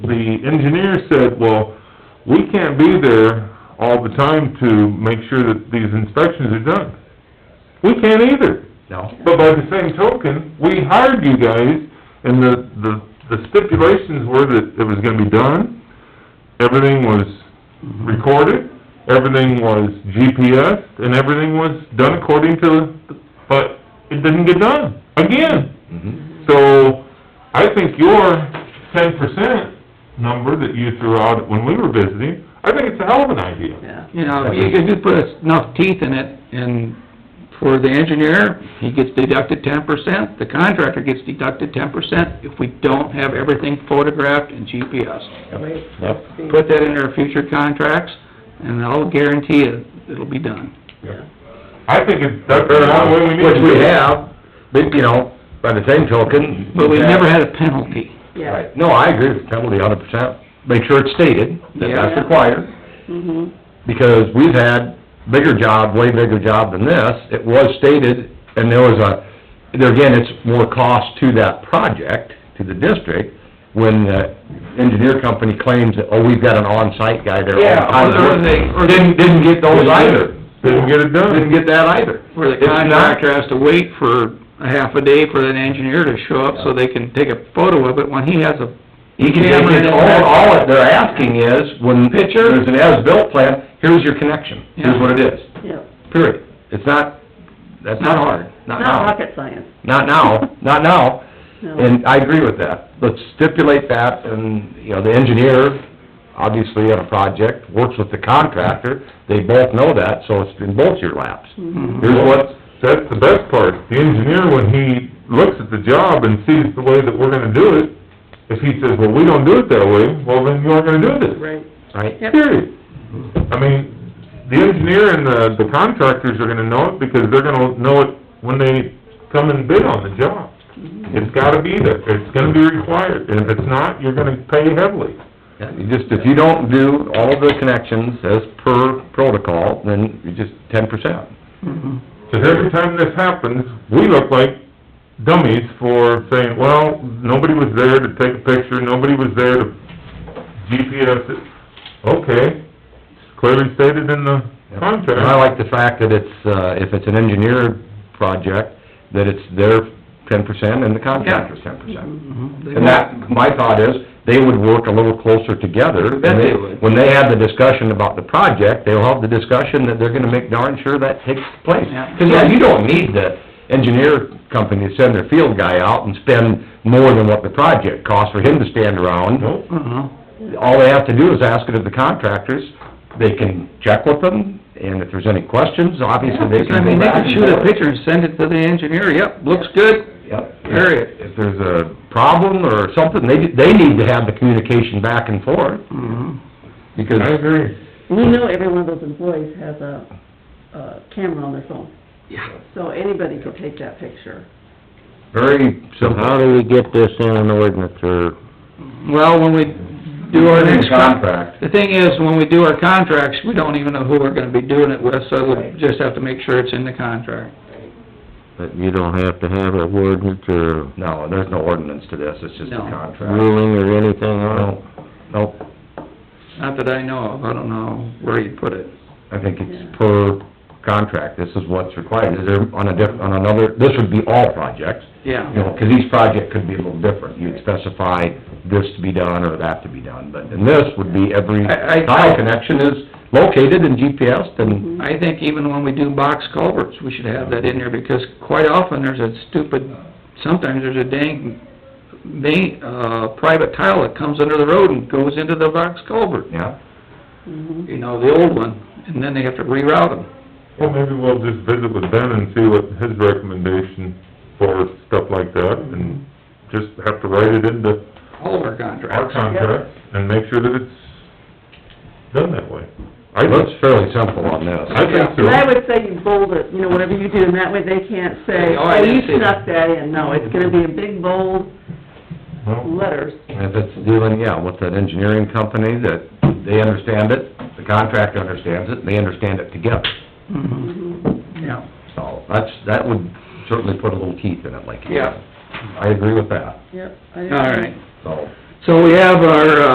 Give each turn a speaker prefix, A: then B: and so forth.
A: the engineer said, well, we can't be there all the time to make sure that these inspections are done. We can't either.
B: No?
A: But by the same token, we hired you guys, and the, the the stipulations were that it was gonna be done, everything was recorded, everything was GPS, and everything was done according to, but it didn't get done, again. Mm-hmm.
B: Mhm.
A: So, I think your ten percent number that you threw out when we were visiting, I think it's a hell of an idea.
C: Yeah, you know, you could just put enough teeth in it, and for the engineer, he gets deducted ten percent, the contractor gets deducted ten percent if we don't have everything photographed and GPS.
B: Yep.
C: Put that in our future contracts, and I'll guarantee it, it'll be done.
A: I think it's, that's the only way we need to
B: uh, Which
A: do it.
B: we have, but, you know, by the same token.
C: But we've never had a penalty.
D: Yeah.
B: Right, no, I agree with Kelly a hundred percent. Make sure it's stated that that's
C: Yeah.
B: required,
D: Mhm.
B: because we've had bigger job, way bigger job than this. It was stated, and there was a, there again, it's more cost to that project, to the district, when the engineer company claims that, oh, we've got an on-site guy there
A: Yeah,
B: all the
A: or
B: time.
A: they- or they-
B: Didn't, didn't get those either.
A: Didn't get it done.
B: Didn't get that either.
C: Where the
B: It's not-
C: contractor has to wait for a half a day for that engineer to show up so they can take a photo of it when he has a
B: He can take his, all, all that they're asking is, when there's an as-built plan, here's your connection, here's what it is,
D: Yeah.
B: period. It's not, that's not hard, not
D: Not
B: now,
D: rocket science,
B: not now, not now,
D: no.
B: and I agree with that. Let's stipulate that, and, you know, the engineer, obviously on a project, works with the contractor, they both know that, so it's in both your laps.
D: Mm-hmm.
C: hmm,
B: Here's what,
A: That's the best part. The engineer, when he looks at the job and sees the way that we're gonna do it, if he says, well, we don't do it that way, well, then you aren't gonna do this.
D: Right.
B: right,
D: Yep.
A: Period. I mean, the engineer and the, the contractors are gonna know it because they're gonna know it when they come and bid on the job. It's gotta be there. It's gonna be required. And if it's not, you're gonna pay heavily.
B: Yeah, you just, if you don't do all the connections as per protocol, then you just ten percent.
D: Mm-hmm.
A: Because every time this happens, we look like dummies for saying, well, nobody was there to take a picture, nobody was there to GPS it. Okay, it's clearly stated in the
B: And I
A: contract.
B: like the fact that it's, uh, if it's an engineer project, that it's their ten percent and the contractor's ten
C: Mm-hmm.
B: percent. And that, my thought is, they would work a little closer together.
C: bet
B: and
C: they would.
B: When they have the discussion about the project, they'll have the discussion that they're gonna make darn sure that takes place.
C: Yeah.
B: Cause yeah, you don't need the engineer company to send their field guy out and spend more than what the project costs for him to stand around
A: Nope.
C: Uh-huh.
B: all they have to do is ask it of the contractors, they can check with them, and if there's any questions, obviously they
C: I
B: can go
C: mean, they
B: back
C: can
B: and
C: shoot a
B: forth.
C: picture and send it to the engineer, yep, looks good,
B: Yep.
C: Period.
B: If there's a problem or something, they, they need to have the communication back and forth,
C: Mm-hmm.
B: because...
A: I agree.
D: We know every one of those employees has a, a camera on their phone,
C: yeah.
D: so anybody could take that picture.
B: Very
E: How
B: simple.
E: do we get this in an ordinance, or,
C: Well, when we do our next con-
B: Contract.
C: the thing is, when we do our contracts, we don't even know who we're gonna be doing it with, so we just have to make sure it's in the contract.
E: but you don't have to have an ordinance or
B: No, there's no ordinance to this, it's just a
C: No.
B: contract.
E: ruling or anything on it?
B: No, nope,
C: Not that I know of, I don't know where you'd put it.
B: I think it's per contract, this is what's required, is there, on a diff, on another, this would be all projects, you
C: Yeah,
B: know, 'cause each project could be a little different. You'd specify this to be done or that to be done, but, and this would be every
C: I- I-
B: tile connection is located and GPSed and,
C: I think even when we do box culverts, we should have that in there, because quite often there's a stupid, sometimes there's a dang, main, uh, private tile that comes under the road and goes into the box culvert.
B: yeah.
D: Mhm.
C: you know, the old one, and then they have to reroute them.
A: Well, maybe we'll just visit with Ben and see what his recommendation for stuff like that, and just have to write it into
C: All of our
A: our
C: contracts.
A: contract and make sure that it's done that way. I
B: It's
A: think,
B: fairly simple on
A: I
B: this.
A: think so.
D: And I would say you bold it, you know, whatever you do, and that way they can't say,
C: Oh, I
D: oh, you
C: didn't see that."
D: snuck that in, no, it's gonna be in big bold
A: Well,
D: letters.
B: If it's dealing, yeah, with that engineering company, that they understand it, the contractor understands it, and they understand it together.
C: Mhm. Yeah,
B: So that's, that would certainly put a little teeth in it, like you
C: yeah,
B: said. I agree with that,
D: Yep.
C: all right.
B: so.
C: So we have our, uh,